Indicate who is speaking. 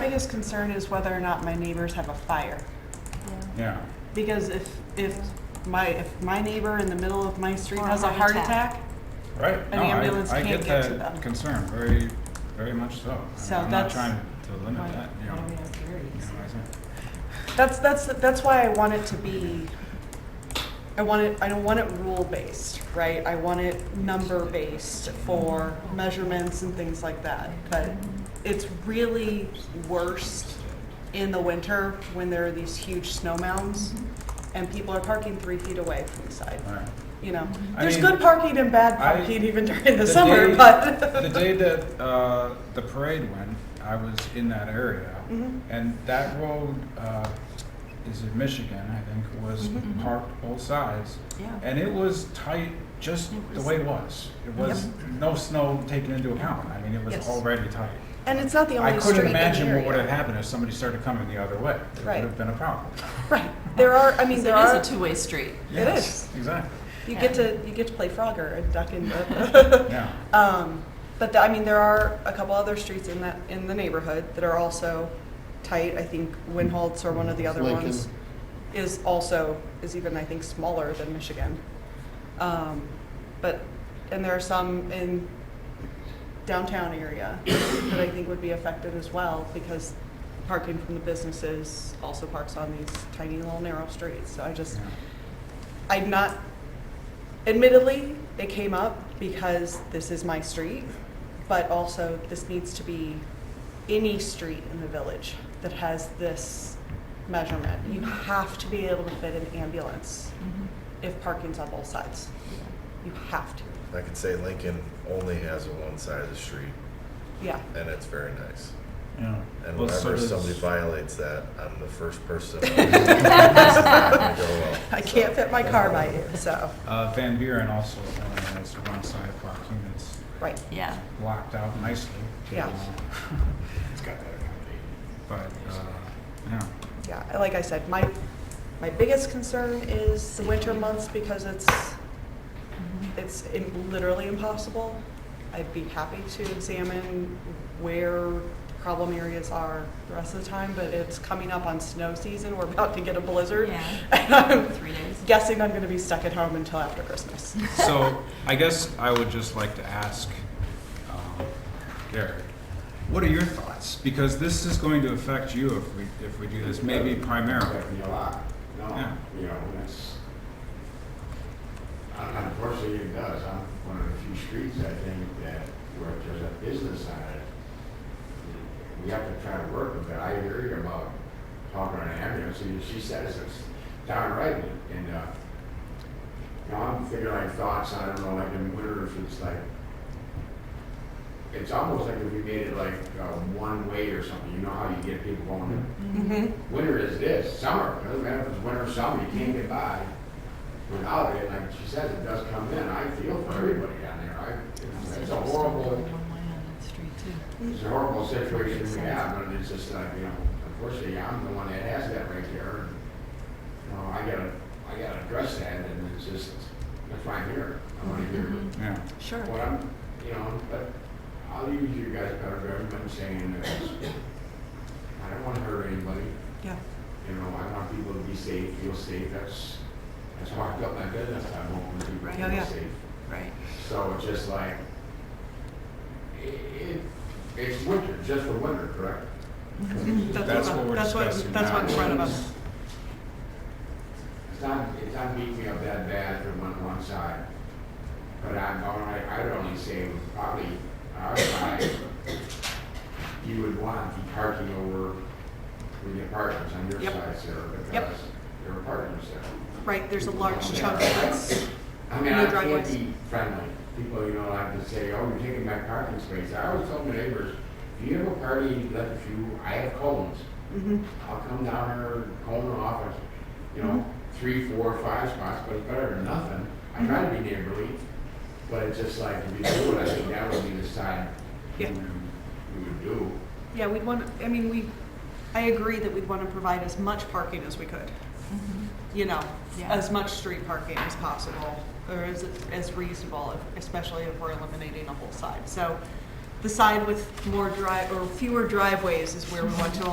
Speaker 1: biggest concern is whether or not my neighbors have a fire.
Speaker 2: Yeah.
Speaker 1: Because if, if my, if my neighbor in the middle of my street
Speaker 3: Or a
Speaker 1: has a
Speaker 3: heart
Speaker 1: heart
Speaker 3: attack.
Speaker 1: attack,
Speaker 2: Right.
Speaker 1: An
Speaker 2: No,
Speaker 1: ambulance
Speaker 2: I, I
Speaker 1: can't
Speaker 2: get
Speaker 1: get to
Speaker 2: that
Speaker 1: them.
Speaker 2: concern very, very much so. I mean,
Speaker 1: So
Speaker 2: I'm not
Speaker 1: that's
Speaker 2: trying to limit
Speaker 1: why-
Speaker 2: that, you know.
Speaker 3: I mean, it's very
Speaker 2: you know,
Speaker 3: easy.
Speaker 2: as a-
Speaker 1: that's, that's, that's why I want it to be, I want it, I don't want it rule-based, right? I want it number-based for measurements and things like that. But it's really worst in the winter when there are these huge snow mounds and people are parking three feet away from the side.
Speaker 2: All right.
Speaker 1: you know,
Speaker 2: I
Speaker 1: there's
Speaker 2: mean,
Speaker 1: good parking and bad
Speaker 2: I-
Speaker 1: parking even during the
Speaker 2: the
Speaker 1: summer,
Speaker 2: day-
Speaker 1: but.
Speaker 2: The day that uh, the parade went, I was in that area.
Speaker 1: Mhm.
Speaker 2: And that road uh, is in Michigan, I think, was
Speaker 1: Mhm.
Speaker 2: parked both sides. And it was tight just
Speaker 3: It
Speaker 2: the
Speaker 3: was-
Speaker 2: way it was. It was no snow taken into account. I mean, it was
Speaker 1: Yes.
Speaker 2: already tight.
Speaker 1: And it's not the
Speaker 2: I
Speaker 1: only street
Speaker 2: couldn't
Speaker 1: in the
Speaker 2: imagine what
Speaker 1: area.
Speaker 2: would have happened if somebody started coming the other way. It would
Speaker 1: Right.
Speaker 2: have been a problem.
Speaker 1: Right, there are, I mean,
Speaker 3: It
Speaker 1: there are,
Speaker 3: is a two-way street.
Speaker 1: It
Speaker 2: Yes, Exactly,
Speaker 1: you get to, you get to play Frogger and duck in.
Speaker 2: yeah.
Speaker 1: Um, but the- I mean, there are a couple other streets in that, in the neighborhood that are also tight. I think Winholtz or one of the other
Speaker 4: Lincoln.
Speaker 1: ones is also, is even, I think, smaller than Michigan. Um, but, and there are some in downtown area that I think would be affected as well because parking from the businesses also parks on these tiny little narrow streets. So I just,
Speaker 2: yeah.
Speaker 1: I'm not, admittedly, they came up because this is my street, but also this needs to be any street in the village that has this measurement. You have to be able to fit an ambulance
Speaker 3: Mm-hmm.
Speaker 1: if parking's on both sides. You have to,
Speaker 5: I could say Lincoln only has a one side of the street,
Speaker 1: yeah.
Speaker 5: and it's very nice.
Speaker 2: Yeah.
Speaker 5: And
Speaker 2: Well, so
Speaker 5: whenever
Speaker 2: does-
Speaker 5: somebody violates that, I'm the first person. This is not gonna go well.
Speaker 1: I can't fit my car by you, so,
Speaker 2: Uh, Van Buren also only has one side parking that's
Speaker 1: right.
Speaker 3: Yeah.
Speaker 2: blocked out nicely.
Speaker 1: Yeah.
Speaker 2: It's got that accommodated. But, uh, yeah.
Speaker 1: Yeah, I- like I said, my, my biggest concern is the winter months because it's, it's im- literally impossible. I'd be happy to examine where problem areas are the rest of the time, but it's coming up on snow season. We're about to get a blizzard.
Speaker 3: Yeah.
Speaker 1: And I'm
Speaker 3: Three days.
Speaker 1: guessing I'm gonna be stuck at home until after Christmas.
Speaker 2: So I guess I would just like to ask um, Gary, what are your thoughts? Because this is going to affect you if we, if we do this, maybe primarily.
Speaker 4: A lot,
Speaker 2: Yeah.
Speaker 4: no, you know, that's, uh, unfortunately it does, I'm one of the few streets, I think, that where there's a business on it. We have to try to work with it, I hear you about talking on ambulance, and she says it's downright, and, uh, you know, I'm thinking like thoughts, I don't know, like in winter, if it's like, it's almost like if we made it like, uh, one way or something, you know how you get people going to
Speaker 1: Mm-hmm.
Speaker 4: winter is this, summer, it doesn't matter if it's winter or summer, you can't get by without it, like she says, it does come in, I feel for everybody down there, I, it's a horrible,
Speaker 3: One way on that street too.
Speaker 4: it's a horrible situation we have, but it's just like, you know, unfortunately, I'm the one that has that right there, and, you know, I gotta, I gotta address that, and it's just, that's why I'm here, I wanna hear
Speaker 2: Yeah.
Speaker 3: Sure.
Speaker 4: what I'm, you know, but I'll use you guys better judgment saying that I don't wanna hurt anybody,
Speaker 1: Yeah.
Speaker 4: you know, I want people to be safe, feel safe, that's, that's how I built my business, I want people
Speaker 3: Right.
Speaker 4: to
Speaker 1: Yeah, yeah.
Speaker 4: feel safe.
Speaker 3: Right.
Speaker 4: So it's just like, i- it, it's winter, just for winter, correct?
Speaker 2: That's what we're
Speaker 1: That's
Speaker 2: discussing
Speaker 1: what, that's what in
Speaker 2: now.
Speaker 1: front of us.
Speaker 4: It's not, it's not beating me up that bad from one, one side. But I'm, all right, I'd only say probably, our side, you would want the parking over with the apartments on your
Speaker 1: Yep.
Speaker 4: side, Sarah,
Speaker 1: Yep.
Speaker 4: because there are apartments there.
Speaker 1: Right, there's a large
Speaker 4: Yeah.
Speaker 1: chunk that's,
Speaker 4: I mean,
Speaker 1: No
Speaker 4: I can't
Speaker 1: driveways.
Speaker 4: be friendly. People, you know, like to say, oh, you're taking my parking space. I always tell my neighbors, if you have a party, let a few, I have cones.
Speaker 1: Mhm.
Speaker 4: I'll come down here, cone it off, and, you know, three, four, five spots, but it's better than nothing. I try to be neighborly, but it's just like, if you do it, I think that would be the side we
Speaker 1: Yeah.
Speaker 4: we would do.
Speaker 1: yeah, we'd want, I mean, we, I agree that we'd want to provide as much parking as we could. you know,
Speaker 3: Yeah.
Speaker 1: as much street parking as possible, or as, as reasonable, especially if we're eliminating a whole side. So the side with more dri, or fewer driveways is where we want to